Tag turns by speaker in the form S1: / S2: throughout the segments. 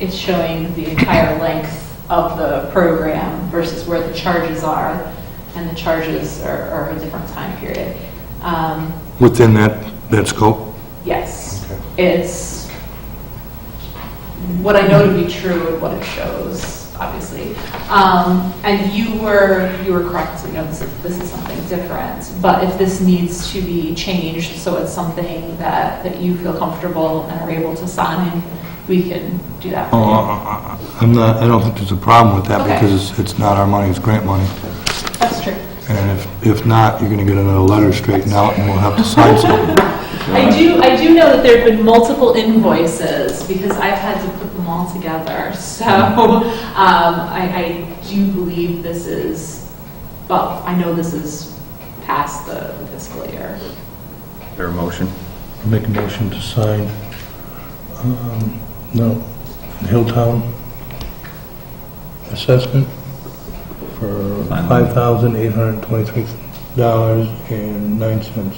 S1: it's showing the entire length of the program versus where the charges are, and the charges are are a different time period. Um,
S2: within that, that scope?
S1: Yes, it's what I know to be true and what it shows, obviously. Um, And you were, you were correct, you know, this is, this is something different. But if this needs to be changed, so it's something that, that you feel comfortable and are able to sign, we can do that. for
S2: Oh,
S1: you.
S3: Uh-huh.
S2: I- I- I'm not, I don't think there's a problem with that
S1: Okay.
S2: because it's- it's not our money, it's grant money.
S1: That's true.
S2: And if, if not, you're going to get another letter straightened out and we'll have to sign something.
S1: I do, I do know that there have been multiple invoices because I've had to put them all together. So um, I, I do believe this is, well, I know this is past the fiscal year.
S4: There a motion?
S3: Make a motion to sign, um, no, Hilltown assessment for five thousand eight hundred twenty-three dollars and nine cents.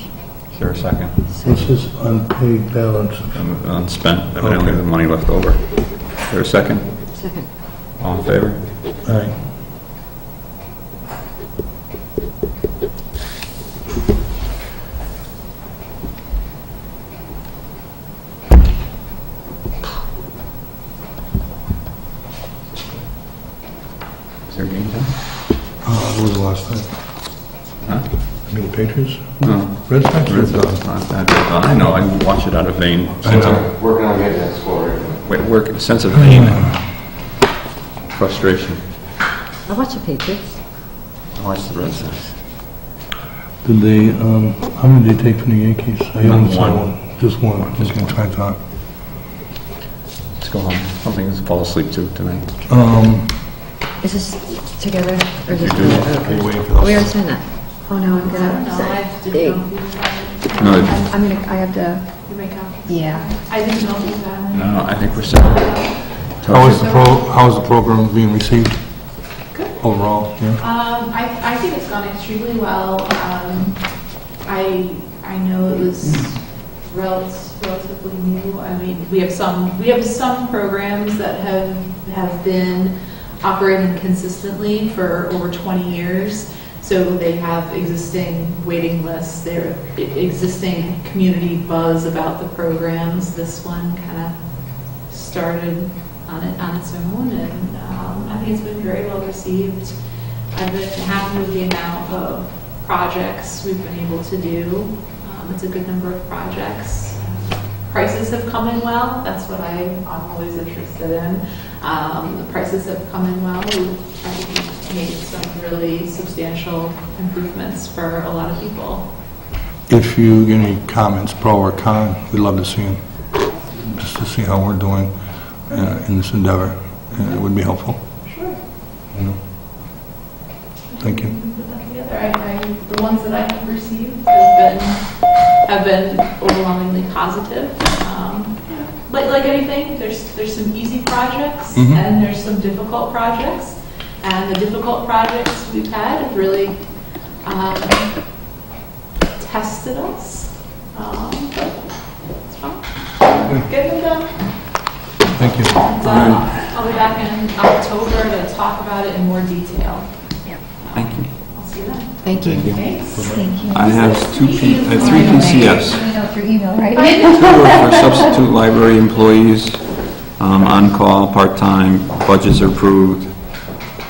S4: Is there a second?
S3: This is unpaid balance.
S4: Um, Unspent, evidently
S3: Okay.
S4: the money left over. Is there a second? Second. All in favor?
S3: Aye.
S4: Is there game time?
S2: Uh, What was the last thing?
S3: Any Patriots?
S4: No. uh,
S3: Red Sox?
S4: Red Sox last night. I know, I watch it out of vein.
S2: I know.
S5: Working on getting that score.
S4: Wait, work, sense of pain and frustration.
S6: I watch the Patriots.
S4: I watch the Red Sox.
S3: Did they, um, how many did they take from the Yankees? I
S4: Not
S3: only saw
S4: one.
S3: one. Just one.
S4: Just
S3: Okay,
S4: one.
S3: that's what I thought.
S4: Let's go home. Something to fall asleep to tonight.
S3: Um,
S6: Is this together or is this?
S4: do.
S2: Are you
S6: okay.
S2: waiting for those?
S6: We already signed that. Oh, no, I'm
S1: No,
S6: gonna.
S1: I
S6: say-
S1: didn't
S6: Hey,
S1: know.
S4: No, it-
S6: I'm gonna, I have to,
S1: You make up.
S6: yeah.
S1: I didn't know that.
S4: no, I think we're set.
S2: How is the pro, how is the program being received? Overall, yeah?
S1: Um, I, I think it's gone extremely well. Um, I, I know it was rel- relatively new. I mean, we have some, we have some programs that have, have been operating consistently for over 20 years. So they have existing waiting lists, there are existing community buzz about the programs. This one kind of started on it, on its own, and um, I think it's been very well received. I've been happy with the amount of projects we've been able to do. Um, It's a good number of projects. Prices have come in well, that's what I, I'm always interested in. Um, The prices have come in well. We've- I think we've made some really substantial improvements for a lot of people.
S2: If you get any comments, pro or con, we'd love to see them, just to see how we're doing uh, in this endeavor. Uh, It would be helpful.
S1: Sure.
S2: you know? Thank you.
S1: Put that together. I, I, the ones that I have received have been, have been overwhelmingly positive. Um, Like, like anything, there's, there's some easy projects
S2: Mhm.
S1: and there's some difficult projects. And the difficult projects we've had have really, um, tested us. Um, but it's fine. Getting it done.
S2: Thank you.
S1: It's, uh, I'll be back in October to talk about it in more detail.
S4: Thank you.
S1: I'll see you then.
S6: Thank you.
S1: Thanks.
S6: Thank you.
S4: I have two P, I have three PCFs.
S6: You know through email, right?
S4: Two are for substitute library employees, um, on-call, part-time, budgets are approved,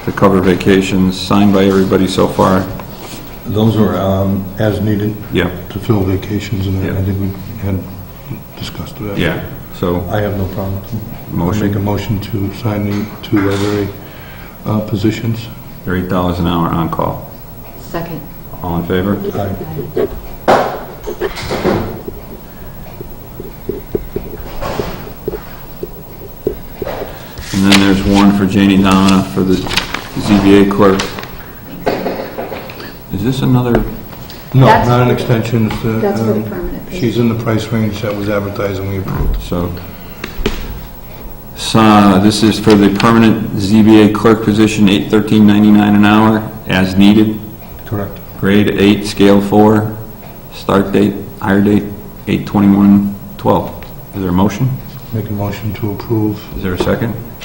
S4: to cover vacations, signed by everybody so far.
S3: those are, um, as needed.
S4: Yeah,
S3: to fill vacations, and
S4: Yeah.
S3: I think we had discussed that.
S4: yeah, so,
S3: I have no problem. with it.
S4: Motion.
S3: Make a motion to sign the two library uh, positions.
S4: they're eight dollars an hour on-call.
S6: Second.
S4: All in favor?
S3: Aye.
S4: And then there's one for Janie Domina for the ZBA clerk. Is this another,
S2: No,
S6: That's-
S2: not an extension, it's the...
S6: That's for the
S2: um,
S6: permanent piece.
S2: She's in the price range that was advertised and we approved.
S4: so, so, this is for the permanent ZBA clerk position, eight thirteen ninety-nine an hour, as needed.
S3: Correct.
S4: Grade eight, scale four, start date, hire date, eight twenty-one twelve. Is there a motion?
S7: Make a motion to approve
S2: Is there a second?